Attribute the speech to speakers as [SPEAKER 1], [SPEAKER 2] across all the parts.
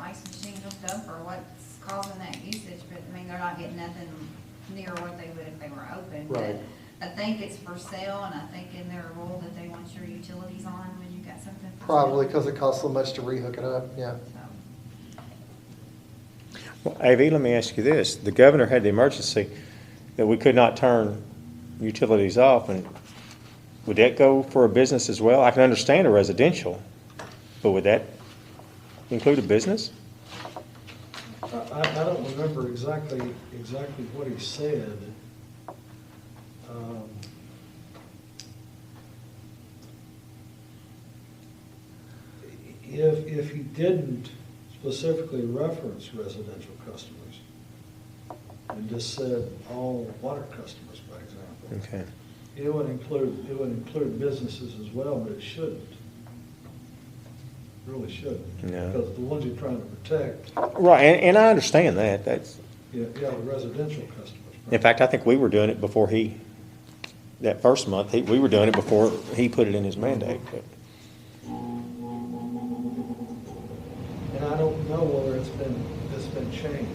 [SPEAKER 1] ice machines and stuff or what's causing that usage, but I mean, they're not getting nothing near what they would if they were open. But
[SPEAKER 2] Right.
[SPEAKER 1] I think it's for sale and I think in their rule that they want your utilities on when you got something. for sale.
[SPEAKER 2] Probably because it costs so much to rehook it up, yeah.
[SPEAKER 1] So,
[SPEAKER 3] Well, AV, let me ask you this. The governor had the emergency that we could not turn utilities off, and would that go for a business as well? I can understand a residential, but would that include a business?
[SPEAKER 4] I, I don't remember exactly, exactly what he said. Um, If, if he didn't specifically reference residential customers, and just said all water customers, by example.
[SPEAKER 3] Okay.
[SPEAKER 4] It would include, it would include businesses as well, but it shouldn't. Really shouldn't.
[SPEAKER 3] No.
[SPEAKER 4] Because the ones you're trying to protect
[SPEAKER 3] Right, and, and I understand that. That's,
[SPEAKER 4] yeah, yeah, the residential customers.
[SPEAKER 3] in fact, I think we were doing it before he, that first month, he, we were doing it before he put it in his mandate, but.
[SPEAKER 4] And I don't know whether it's been, it's been changed.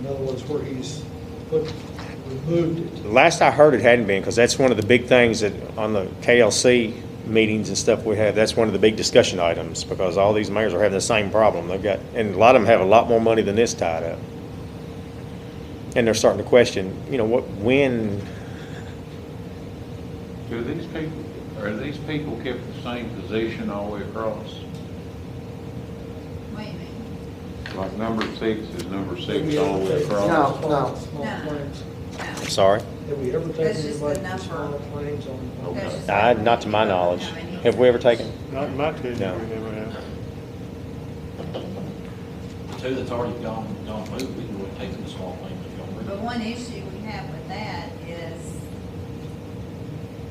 [SPEAKER 4] In other words, where he's put, removed it.
[SPEAKER 3] Last I heard, it hadn't been, because that's one of the big things that, on the KLC meetings and stuff we have, that's one of the big discussion items, because all these mayors are having the same problem. They've got, and a lot of them have a lot more money than this tied up. And they're starting to question, you know, what, when,
[SPEAKER 5] Do these people, are these people kept the same position all the way across?
[SPEAKER 1] what do you mean?
[SPEAKER 5] Like number six is number six
[SPEAKER 4] Have we
[SPEAKER 5] all
[SPEAKER 4] ever
[SPEAKER 5] the way
[SPEAKER 4] taken
[SPEAKER 5] across?
[SPEAKER 4] small-
[SPEAKER 2] No, no.
[SPEAKER 4] Small
[SPEAKER 1] No.
[SPEAKER 4] claims,
[SPEAKER 1] No.
[SPEAKER 3] I'm sorry,
[SPEAKER 4] have we ever
[SPEAKER 1] That's
[SPEAKER 4] taken
[SPEAKER 1] just the
[SPEAKER 4] anybody from
[SPEAKER 1] number.
[SPEAKER 4] small claims on? on-
[SPEAKER 1] That's just-
[SPEAKER 3] I, not to my knowledge. Have we ever taken?
[SPEAKER 6] Not in my opinion,
[SPEAKER 3] No.
[SPEAKER 6] we never have.
[SPEAKER 7] The two that's already gone, gone moved, we can go and take them to small claims if y'all
[SPEAKER 1] But
[SPEAKER 7] want.
[SPEAKER 1] one issue we have with that is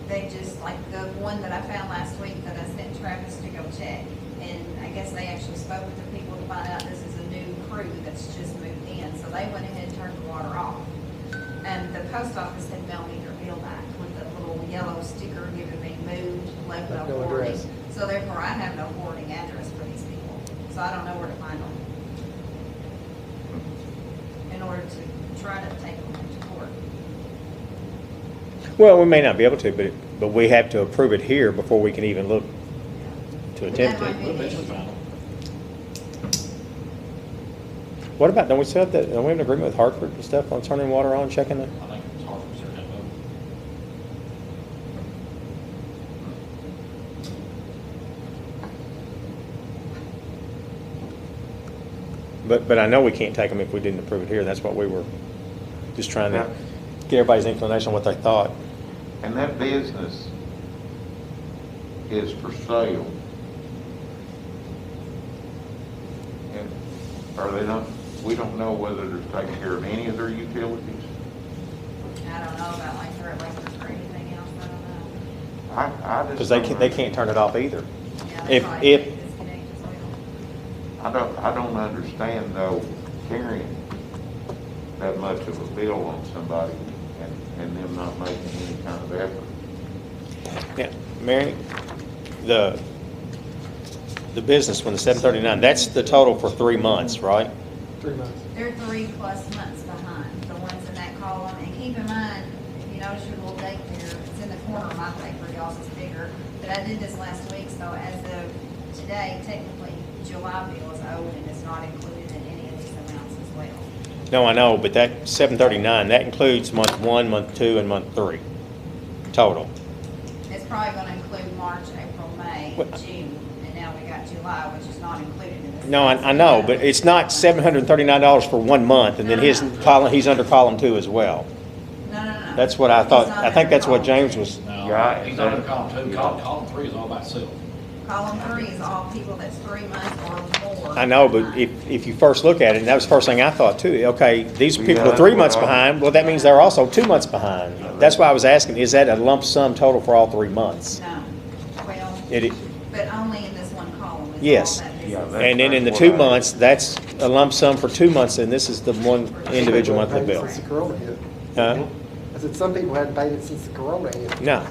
[SPEAKER 1] they just, like the one that I found last week that I sent Travis to go check. And I guess they actually spoke with the people to find out this is a new crew that's just moved in, so they went ahead and turned the water off. And the post office had mailed me their bill back with the little yellow sticker giving me moved, left
[SPEAKER 2] With
[SPEAKER 1] no
[SPEAKER 2] no
[SPEAKER 1] forwarding.
[SPEAKER 2] address.
[SPEAKER 1] So therefore, I have no forwarding address for these people, so I don't know where to find them in order to try to take them to court.
[SPEAKER 3] Well, we may not be able to, but, it- but we have to approve it here before we can even look to attempt
[SPEAKER 1] That
[SPEAKER 3] it.
[SPEAKER 1] might
[SPEAKER 7] We'll eventually find them.
[SPEAKER 3] What about, don't we set up that, don't we have an agreement with Hartford and stuff on turning water on, checking the?
[SPEAKER 7] I think it's hard for certain of them.
[SPEAKER 3] But, but I know we can't take them if we didn't approve it here, that's what we were just trying to get everybody's inclination on what they thought.
[SPEAKER 5] And that business is for sale. And are they not, we don't know whether they're taking care of any of their utilities?
[SPEAKER 1] I don't know about like their electric or anything else, I don't
[SPEAKER 5] I, I just.
[SPEAKER 3] Because they can't, they
[SPEAKER 5] don't-
[SPEAKER 3] can't turn it off either.
[SPEAKER 1] know. Yeah, they
[SPEAKER 3] If,
[SPEAKER 1] probably
[SPEAKER 3] if,
[SPEAKER 1] disconnect as well.
[SPEAKER 5] I don't, I don't understand though carrying that much of a bill on somebody and, and them not making any kind of effort.
[SPEAKER 3] yeah, Mary, the, the business one, the seven thirty-nine, that's the total for three months, right?
[SPEAKER 2] Three months.
[SPEAKER 1] They're three plus months behind, the ones in that column, and keep in mind, if you notice your little date there, it's in the corner of my paper, y'all's is bigger, but I did this last week, so as of today, technically, July bill is owed and it's not included in any of these amounts as well.
[SPEAKER 3] No, I know, but that seven thirty-nine, that includes month one, month two, and month three, total.
[SPEAKER 1] It's probably gonna include March, April, May,
[SPEAKER 3] What-
[SPEAKER 1] June, and now we got July, which is not included in this.
[SPEAKER 3] No, I, I know, but it's not seven hundred and thirty-nine dollars for one month, and then his column, he's under column two as well.
[SPEAKER 1] No, no, no.
[SPEAKER 3] That's what I thought,
[SPEAKER 1] It's not
[SPEAKER 3] I think that's what
[SPEAKER 1] every
[SPEAKER 3] James was,
[SPEAKER 5] Yeah,
[SPEAKER 7] No, he's not in column two, column, column three is all by itself.
[SPEAKER 1] Column three is all people that's three months or more.
[SPEAKER 3] I know, but if, if you first look at it, and that was the first thing I thought too, okay, these
[SPEAKER 5] Yeah,
[SPEAKER 3] people are
[SPEAKER 5] that's
[SPEAKER 3] three
[SPEAKER 5] what
[SPEAKER 3] months
[SPEAKER 5] I-
[SPEAKER 3] behind, well, that means they're also two months behind. That's why I was asking, is that a lump sum total for all three months?
[SPEAKER 1] No, well,
[SPEAKER 3] It, i-
[SPEAKER 1] but only in this one column
[SPEAKER 3] Yes.
[SPEAKER 1] is all that
[SPEAKER 5] Yeah,
[SPEAKER 1] business.
[SPEAKER 5] that-
[SPEAKER 3] and then in the two months, that's a lump sum for two months, and this is the one individual monthly
[SPEAKER 2] Hadn't paid
[SPEAKER 3] bill.
[SPEAKER 2] Since the corona hit.
[SPEAKER 3] Huh?
[SPEAKER 2] I said, some people hadn't paid it since the corona hit.
[SPEAKER 3] No,